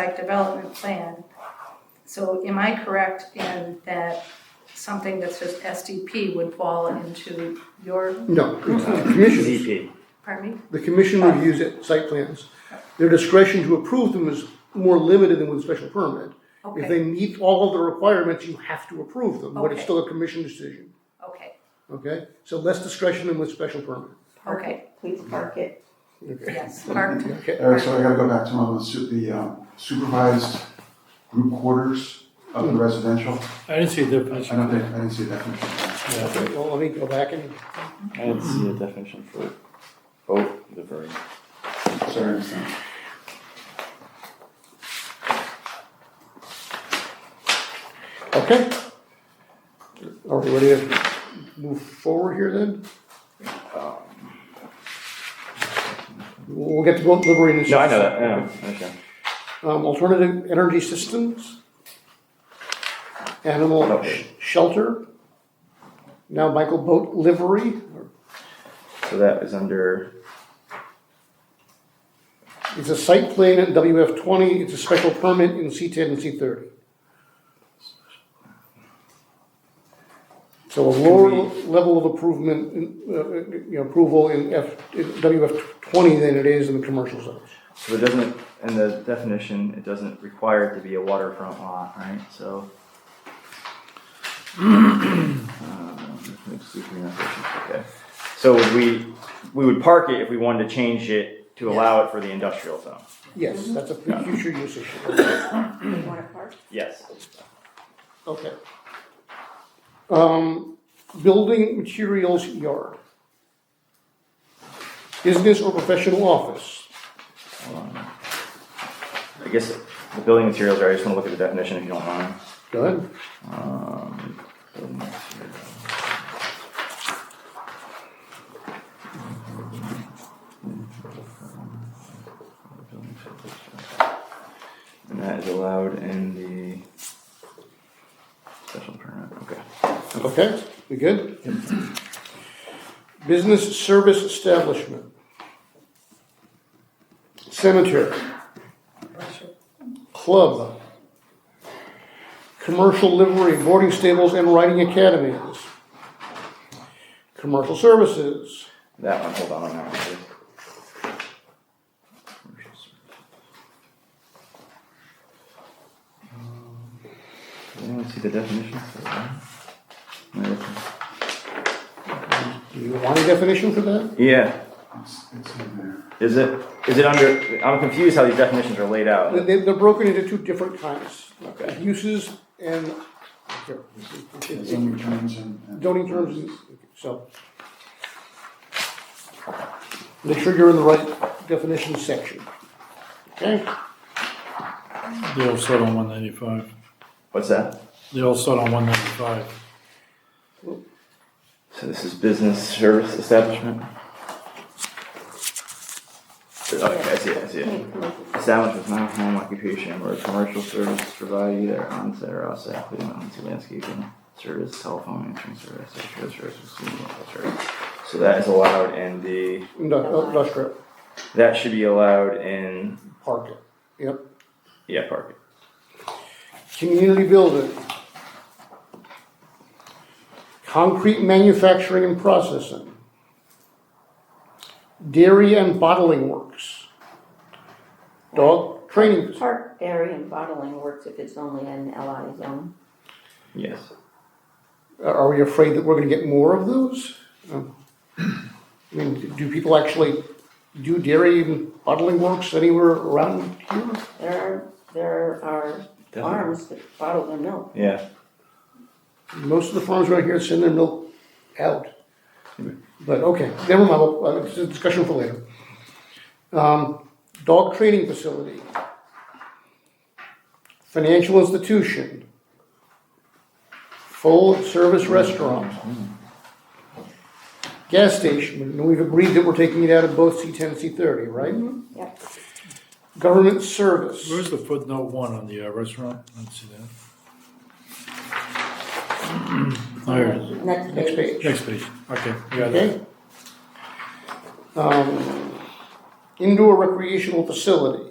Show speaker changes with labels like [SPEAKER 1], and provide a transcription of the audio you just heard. [SPEAKER 1] like development plan. So am I correct in that something that says SDP would fall into your,
[SPEAKER 2] No, it's the commission,
[SPEAKER 3] ZP.
[SPEAKER 1] pardon me?
[SPEAKER 2] the commission reviews it, site plans. Their discretion to approve them is more limited than with special permit. If
[SPEAKER 1] Okay,
[SPEAKER 2] they meet all of the requirements, you have to approve them, but it's
[SPEAKER 1] Okay.
[SPEAKER 2] still a commission decision,
[SPEAKER 1] okay,
[SPEAKER 2] okay? So less discretion than with special permit.
[SPEAKER 4] Park
[SPEAKER 1] Okay.
[SPEAKER 4] it, please park it.
[SPEAKER 2] Okay.
[SPEAKER 1] yes, parked,
[SPEAKER 2] Okay.
[SPEAKER 5] Eric, so I gotta go back to my, su- the um, supervised group quarters of the residential.
[SPEAKER 6] I didn't see a
[SPEAKER 5] I
[SPEAKER 6] definition.
[SPEAKER 5] don't think, I didn't see a definition.
[SPEAKER 6] Yeah.
[SPEAKER 2] Okay, well, let me go back and,
[SPEAKER 3] I didn't see a definition for, oh, the verb.
[SPEAKER 5] Sorry, I'm sorry.
[SPEAKER 2] okay? Are we ready to move forward here then? Um, We'll get to vote liberating.
[SPEAKER 3] No, I know that, I know, Oh, okay.
[SPEAKER 2] um, alternative energy systems, animal sh- shelter, now Michael Boat livery,
[SPEAKER 3] So that is under,
[SPEAKER 2] it's a site plan at WF twenty, it's a special permit in C ten and C thirty. So a lower level of improvement, in, uh, uh, you know, approval in F, in WF twenty than it is in the commercial zones.
[SPEAKER 3] so it doesn't, in the definition, it doesn't require it to be a waterfront lot, right, so. Um, let's see if we have- Okay, so would we, we would park it if we wanted to change it to allow it for the industrial zone,
[SPEAKER 2] Yes, that's a future use issue,
[SPEAKER 4] You wanna park?
[SPEAKER 3] yes.
[SPEAKER 2] okay. Um, building materials yard. Business or professional office,
[SPEAKER 3] I guess the building materials, are. I just wanna look at the definition if you don't mind.
[SPEAKER 2] go ahead.
[SPEAKER 3] Um, building materials. And that is allowed in the special permit, okay.
[SPEAKER 2] Okay, we good? Business service establishment. Cemetery. Club. Commercial livery, boarding stables and riding academies. Commercial services.
[SPEAKER 3] That one, hold on on that one, please. Commercial service. Um, Does anyone see the definition for that? No, that's-
[SPEAKER 2] Do you want a definition for that?
[SPEAKER 3] Yeah,
[SPEAKER 5] It's, it's in there.
[SPEAKER 3] is it, is it under, I'm confused how these definitions are laid out.
[SPEAKER 2] They- They're broken into two different kinds.
[SPEAKER 3] Okay.
[SPEAKER 2] Uses and.
[SPEAKER 5] It's in terms and. and-
[SPEAKER 2] zoning terms, and- so. Make sure you're in the right definition section. Okay?
[SPEAKER 6] They all start on one ninety-five.
[SPEAKER 3] What's that?
[SPEAKER 6] They all start on one ninety-five.
[SPEAKER 3] So this is business service establishment? Okay, I see it, I see it.
[SPEAKER 4] Hey, come on.
[SPEAKER 3] Establishment not home occupation or commercial service provided either onset or offset, including onset landscaping service, telephone, answering service, social service, receiving local service. So that is allowed in the,
[SPEAKER 2] Indu- Industrial,
[SPEAKER 3] that should be allowed in,
[SPEAKER 2] park it, yep.
[SPEAKER 3] yeah, parking.
[SPEAKER 2] Community building. Concrete manufacturing and processing. Dairy and bottling works. Dog training facility.
[SPEAKER 4] Park dairy and bottling works if it's only an LI zone.
[SPEAKER 3] Yes.
[SPEAKER 2] Are are we afraid that we're gonna get more of those? Um, I mean, do people actually do dairy and bottling works anywhere around here?
[SPEAKER 4] There are, there are farms that bottle their milk.
[SPEAKER 3] Yeah,
[SPEAKER 2] Most of the farms around here send their milk out. But, okay, never mind, well, uh, it's a discussion for later. Um, Dog training facility. Financial institution. Full-service restaurant. Gas station, and we've agreed that we're taking it out of both C ten and C thirty, right?
[SPEAKER 4] Yep.
[SPEAKER 2] Government service.
[SPEAKER 6] Where's the footnote one on the uh, restaurant? Let's see that. There it is.
[SPEAKER 4] Next
[SPEAKER 2] Next
[SPEAKER 4] page.
[SPEAKER 2] page.
[SPEAKER 6] Next page. Okay, I got it.
[SPEAKER 2] Okay. Um, Indoor recreational facility.